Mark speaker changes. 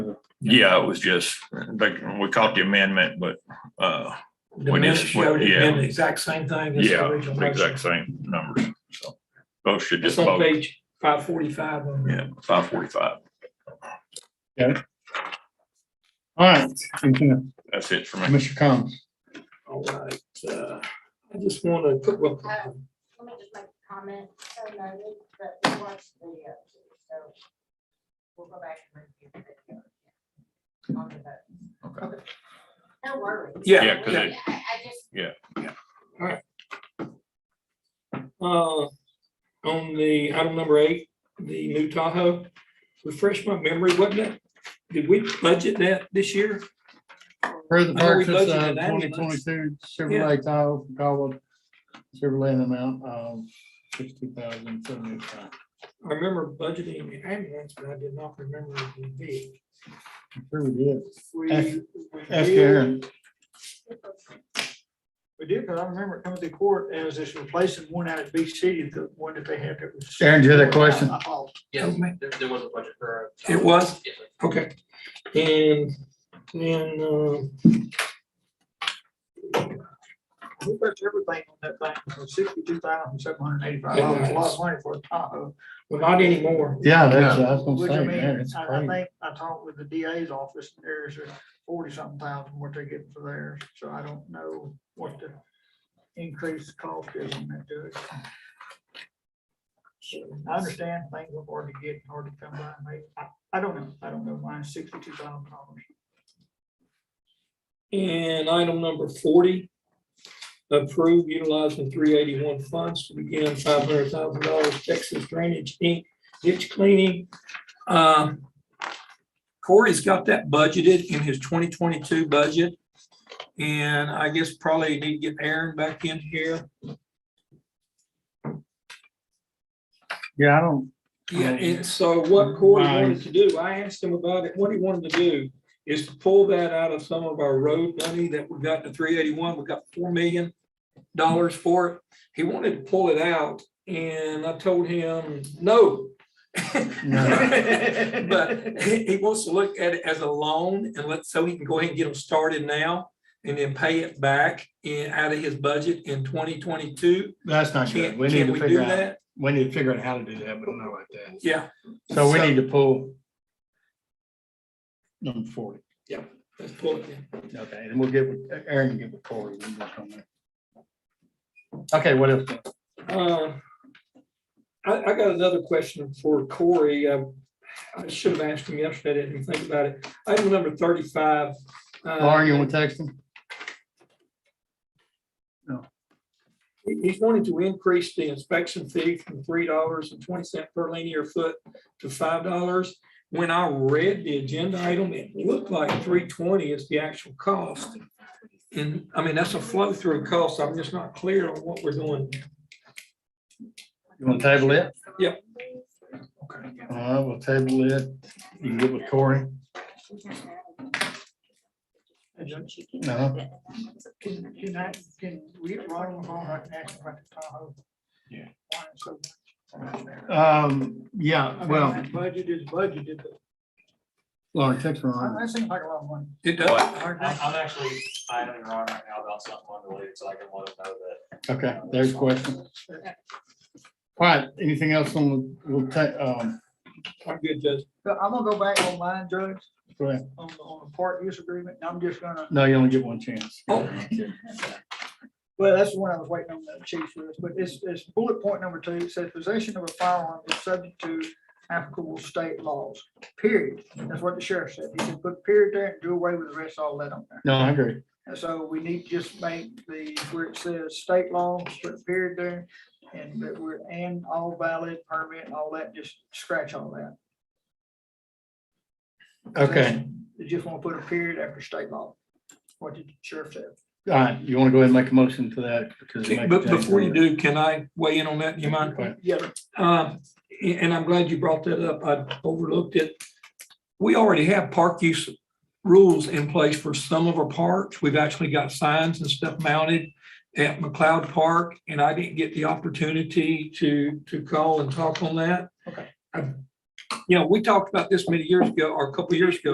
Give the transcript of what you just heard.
Speaker 1: Yeah, it was just, like, we caught the amendment, but, uh,
Speaker 2: The
Speaker 1: We
Speaker 2: minute
Speaker 1: just-
Speaker 2: showed it
Speaker 1: yeah.
Speaker 2: did the exact same thing as the
Speaker 1: yeah,
Speaker 2: original
Speaker 1: the
Speaker 2: motion.
Speaker 1: exact same numbers, so. Both should just
Speaker 2: It's on
Speaker 1: vote,
Speaker 2: page five forty-five on the
Speaker 1: yeah, five forty-five.
Speaker 3: All right, Commissioner
Speaker 1: That's it for me.
Speaker 3: Commissioner Combs.
Speaker 2: All right, uh, I just want to put, well,
Speaker 4: Let me just make a comment, so noted, but we watched the video too, so we'll go back and review the video. again On the vote. Okay. No worries.
Speaker 2: Yeah.
Speaker 1: Yeah, 'cause it-
Speaker 4: I, I just,
Speaker 2: uh, on the item number eight, the new Tahoe, refresh my memory, wasn't it? Did we budget that this year?
Speaker 3: For the
Speaker 2: I know we
Speaker 3: purchase
Speaker 2: budgeted
Speaker 3: of
Speaker 2: that,
Speaker 3: twenty
Speaker 2: but-
Speaker 3: twenty-two Chevrolet Tahoe, from Caldwell, Chevrolet in the amount of sixty thousand seventy-five.
Speaker 2: I remember budgeting the ambulance, but I did not remember the vehicle.
Speaker 3: Sure we did.
Speaker 2: We-
Speaker 3: Ask-
Speaker 2: we
Speaker 3: Ask
Speaker 2: did-
Speaker 3: Aaron.
Speaker 2: We did, but I remember it coming to court as it's replacing one out at BC, the one that they had that was.
Speaker 3: Aaron, do you have a question?
Speaker 5: Yes, there, there was a budget for. uh,
Speaker 2: It was?
Speaker 5: Yes, sir.
Speaker 2: Okay, and then, um.
Speaker 6: We put everything on that thing, for sixty-two thousand, seven hundred and eighty-five dollars, a lot of money for a Tahoe.
Speaker 2: well, not anymore.
Speaker 3: Yeah, that's, I was
Speaker 6: Which I
Speaker 3: gonna say,
Speaker 6: mean,
Speaker 3: man, it's
Speaker 6: I, I
Speaker 3: crazy.
Speaker 6: think, I talked with the DA's office, there's forty-something thousand what they're getting for theirs, so I don't know what the increased cost is on that to it. I understand things are hard to get, hard to come by, maybe, I, I don't know, I don't know why sixty-two thousand dollars.
Speaker 2: And item number forty, approve utilizing three eighty-one funds to begin five hundred thousand dollars Texas Drainage Inc. ditch cleaning. Um, Corey's got that budgeted in his twenty twenty-two budget. And I guess probably need to get Aaron back in here.
Speaker 3: Yeah, I don't,
Speaker 2: Yeah, and Um, so what Corey
Speaker 3: Right.
Speaker 2: wanted to do, I asked him about it, what he wanted to do is to pull that out of some of our road money that we got to three eighty-one, we got four million dollars for it. He wanted to pull it out and I told him, no. But he, he wants to look at it as a loan and let, so he can go ahead and get them started now and then pay it back in, out of his budget in twenty twenty-two.
Speaker 3: that's not good.
Speaker 2: Can,
Speaker 3: We need
Speaker 2: can
Speaker 3: to
Speaker 2: we do
Speaker 3: figure out,
Speaker 2: that?
Speaker 3: we need to figure out how to do that, but not like that.
Speaker 2: Yeah,
Speaker 3: So we
Speaker 2: So-
Speaker 3: need to pull number forty.
Speaker 2: let's pull it in.
Speaker 3: Okay, and we'll get, with- Aaron can get with Corey. we'll work on that. Okay, what else?
Speaker 2: Uh, I, I got another question for Corey. Uh, I should have asked him yesterday, I didn't think about it. Item number thirty-five. uh,
Speaker 3: Lauren, you want to text him?
Speaker 2: he- He's wanting to increase the inspection fee from three dollars and twenty cent per linear foot to five dollars. When I read the agenda item, it looked like three twenty is the actual cost. And, I mean, that's a flow-through cost. I'm just not clear on what we're doing.
Speaker 3: You want to table it?
Speaker 2: Yep.
Speaker 3: All right, we'll table it. You can get with Corey. No.
Speaker 6: Can, can I, can we, Ron, on the phone right next to the Tahoe?
Speaker 3: Yeah.
Speaker 6: Why it's so
Speaker 3: Um, yeah,
Speaker 6: I mean,
Speaker 3: well,
Speaker 6: that Budget is budgeted, but
Speaker 3: Lauren, text
Speaker 6: that-
Speaker 3: Ron.
Speaker 6: that seems like a lot of money.
Speaker 2: It does.
Speaker 5: I'm, I'm actually, I know you're on right now about something unrelated, so I can let them know that
Speaker 3: Okay, there's a question. All right, anything else on, the- we'll take, um,
Speaker 2: I'm good, Judge.
Speaker 6: But I'm gonna go back online, Judge,
Speaker 3: go ahead.
Speaker 6: on, the- on the park use agreement, and I'm just gonna,
Speaker 3: No, you only get one chance.
Speaker 2: Oh.
Speaker 6: well, that's the one I was waiting on the chief for, but it's, it's bullet point number two, it says possession of a firearm is subject to applicable state laws, period. That's what the sheriff said, you can put period there and do away with the rest, all that on there.
Speaker 3: No, I agree.
Speaker 6: And so we need to just make the, where it says state laws, put period there, and that we're, and all valid permit, all that, just scratch all that.
Speaker 3: Okay,
Speaker 6: You just want to put a period after state law. What did the sheriff say?
Speaker 3: all right, you want to go ahead and make a motion to that? because it
Speaker 2: Okay,
Speaker 3: makes
Speaker 2: But
Speaker 3: sense.
Speaker 2: before you do, can I weigh in on that? Do you mind?
Speaker 3: Okay.
Speaker 6: Yeah,
Speaker 2: Um, a- And I'm glad you brought that up. I overlooked it. We already have park use rules in place for some of our parks. We've actually got signs and stuff mounted at McLeod Park, and I didn't get the opportunity to, to call and talk on that.
Speaker 6: Okay.
Speaker 2: I- You know, we talked about this many years ago, or a couple years ago,